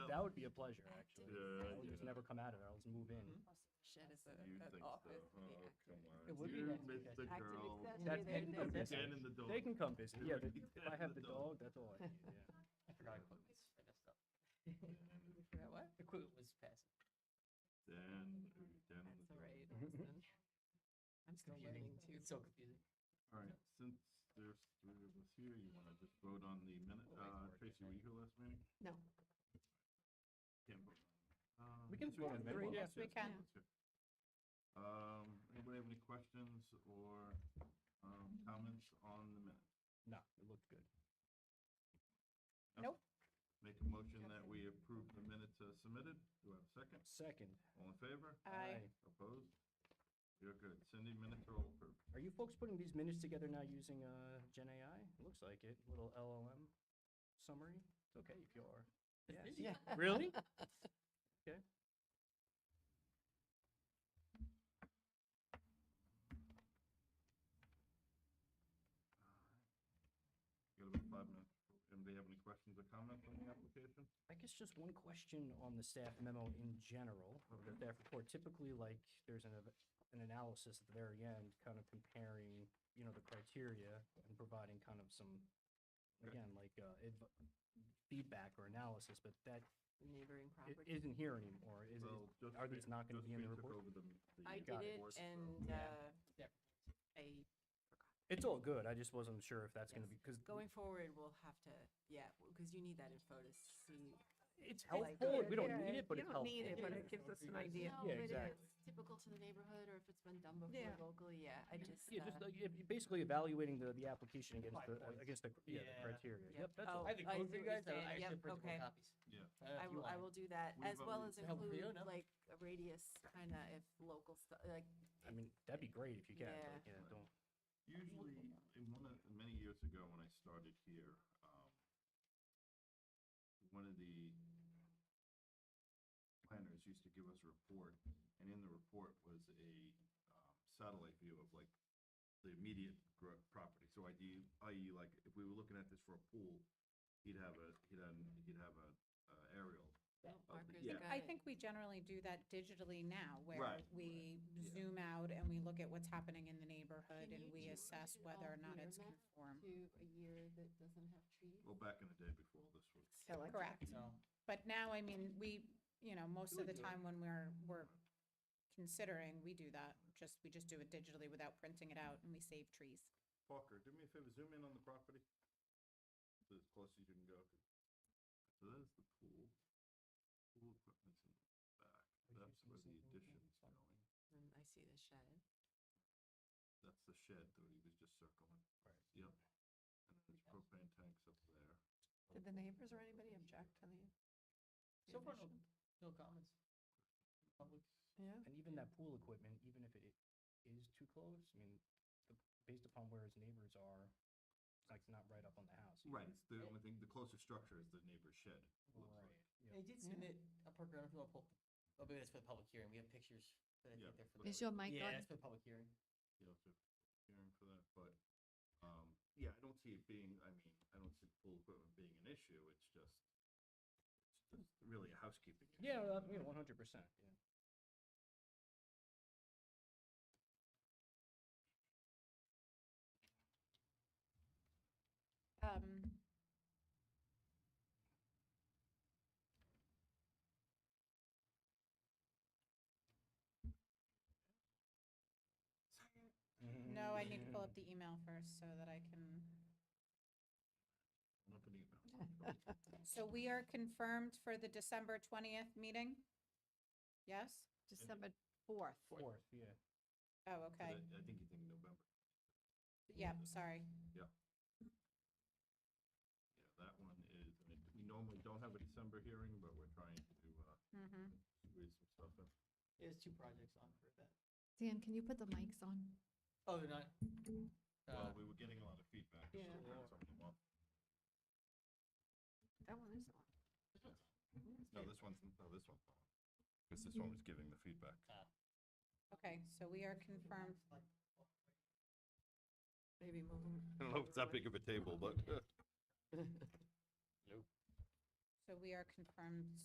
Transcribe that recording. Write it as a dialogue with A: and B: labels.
A: that would be a pleasure, actually.
B: Yeah,
A: I'll just
B: yeah.
A: never come out of there, I'll just move in.
C: Shit is a,
B: You
C: an
B: think
C: office.
B: so? Oh, come on.
A: It would be
B: You
A: nice
B: miss
A: because-
B: the
D: Active
B: girl.
D: accessory
A: That's
D: there,
A: any
D: there.
A: of this.
B: Dan and the dog.
A: They can come visit, yeah,
B: Dude, you
A: the- if I
B: have
A: have
B: the
A: the
B: dog.
A: dog, that's all I need, yeah.
E: I forgot equipment was messed up.
C: Yeah, what?
E: Equipment was passive.
B: Dan, ooh, Dan and
C: That's
B: the
C: all
B: dog.
C: right,
A: Mm-hmm.
C: Austin. Mm-hmm. I'm still
E: Confusing.
C: learning too.
E: It's so confusing.
B: All right, since there's three of us here, you wanna just vote on the minute,
E: We'll wait
B: uh,
E: for it
B: Tracy,
E: to
B: were you here last meeting?
C: No.
B: Can't vote.
A: We can throw in
C: three,
A: minutes.
C: yes, we can.
B: Um, anybody have any questions or, um, comments on the minute?
A: No, it looked good.
B: Make a motion that we approve the minutes uh, submitted. Do I have a second?
A: Second.
B: All in favor?
C: Aye.
B: Opposed? You're good. Cindy, minutes are all approved.
A: Are you folks putting these minutes together now using, uh, Gen AI? Looks like it, little LLM summary? It's okay if you are. Yes.
C: Yeah.
A: Really?
B: Got about five minutes. Anybody have any questions or comments on the application?
A: I guess just one question on the staff memo in general, of the staff report. Typically, like, there's an, ev- an analysis at the very end, kind of comparing, you know, the criteria and providing kind of some,
B: Okay.
A: again, like, uh, adv- feedback or analysis, but that
C: Neighboring
A: it
C: property.
A: isn't here anymore, is it?
B: Well, just
A: are these not gonna be in the report?
C: I
A: got
C: did it and,
E: Yeah.
C: uh,
E: Yeah.
C: I,
A: It's all good, I just wasn't sure if that's gonna be, because
C: going forward, we'll have to, yeah, because you need that info to see.
A: it's
F: Oh,
C: like,
A: helpful,
C: uh,
A: we don't
F: yeah,
A: need it, but
F: you
A: it's
F: don't
A: helpful.
F: need it, but it gives us an idea.
C: No,
A: Yeah,
C: but if
A: exactly.
C: it's Typical to the neighborhood or if it's been done before
F: Yeah.
C: locally, yeah, I just.
A: Yeah, just
C: uh,
A: like, if- basically evaluating the, the application against
E: Five
A: the,
E: points.
A: against the, cr- yeah,
E: Yeah.
A: the criteria,
C: Yeah.
A: yep, that's
C: Oh,
A: all.
E: I have the
C: I
E: code
C: see
E: for you
C: what you're
E: guys, though.
C: saying.
E: I
C: Yep,
E: actually printed
C: okay.
E: more copies.
B: Yeah.
E: Uh, if
C: I
E: you
C: will, I
E: want.
C: will do that,
B: What
C: as
B: about
C: well
B: you?
C: as
E: Help with
C: include
E: Fiona?
C: like a radius, kinda if local stuff, like,
A: I mean, that'd be great if you can,
C: Yeah.
A: but, yeah, don't.
B: Usually, in one of, many years ago when I started here, um, one of the planners used to give us a report, and in the report was a um, satellite view of like the immediate gro- property. So ID, i.e., E, like if we were looking at this for a pool, he'd have a, he'd have, he'd have a uh, aerial. of the-
C: markers.
B: yeah.
C: got
G: I
C: it.
G: think we generally do that digitally now, where
B: Right,
G: we
B: yeah.
G: zoom out and we look at what's happening in the neighborhood
C: Can
G: and
C: you
G: Uh, we
C: do
G: assess
C: an
G: whether or not it's
C: all-year map?
G: conform.
C: To a year that doesn't have trees.
B: Well, back in the day before this was.
G: Correct.
E: No.
G: But now, I mean, we, you know, most of
B: would
G: the
B: do it.
G: time when we're, we're considering, we do that. Just, we just do it digitally without printing it out and we save trees.
B: Parker, do me a favor, zoom in on the property. To as close as you can go. So there's the pool. Pool equipment's in the back. That's where the addition's going.
C: And I see the shed.
B: That's the shed that he was just circling. Right. Yep. And then there's propane tanks up there.
D: Did the neighbors or anybody object to the? the
E: So far, no,
D: addition?
E: no comments. Public.
D: Yeah,
A: And even that pool equipment, even if it is too close, I mean, the- based upon where his neighbors are, it's like not right up on the house.
B: Right, it's the only thing, the closest structure is the neighbor's shed. it looks like.
A: yeah.
E: They did
D: Yeah.
E: submit a program, if you want to pull, oh, maybe that's for the public hearing. We have pictures, but I
B: Yeah,
E: think they're for
B: but-
E: the.
B: Is your
E: mic Yeah, that's for the public hearing.
B: You'll have to hearing for that, but, um, yeah, I don't see it being, I mean, I don't see pool equipment being an issue. It's just, it's just really a housekeeping. issue.
A: Yeah, well, yeah, one hundred percent, yeah.
G: Um, no, I need to pull up the email first so that I can.
B: I'm not gonna email.
G: So we are confirmed for the December twentieth meeting? Yes?
D: December fourth.
A: Fourth, yeah.
G: Oh,
B: But
G: okay.
B: I I think you think November.
G: Yeah, sorry.
B: Yeah, that one is, I mean, we normally don't have a December hearing, but we're trying to, uh,
G: Mm-hmm.
B: squeeze some stuff in.
E: There's two projects on for that.
H: Dan, can you put the mics on?
E: Oh, they're not.
B: Well,
E: uh,
B: we were getting a lot of feedback. so
C: Yeah.
B: we're trying something more.
D: That one is on.
B: No, this one's, no, this one's not. Because this one was giving the feedback.
E: uh,
G: Okay, so we are confirmed.
D: Maybe move 'em
B: I don't know if it's that big of a table, but.
G: So we are confirmed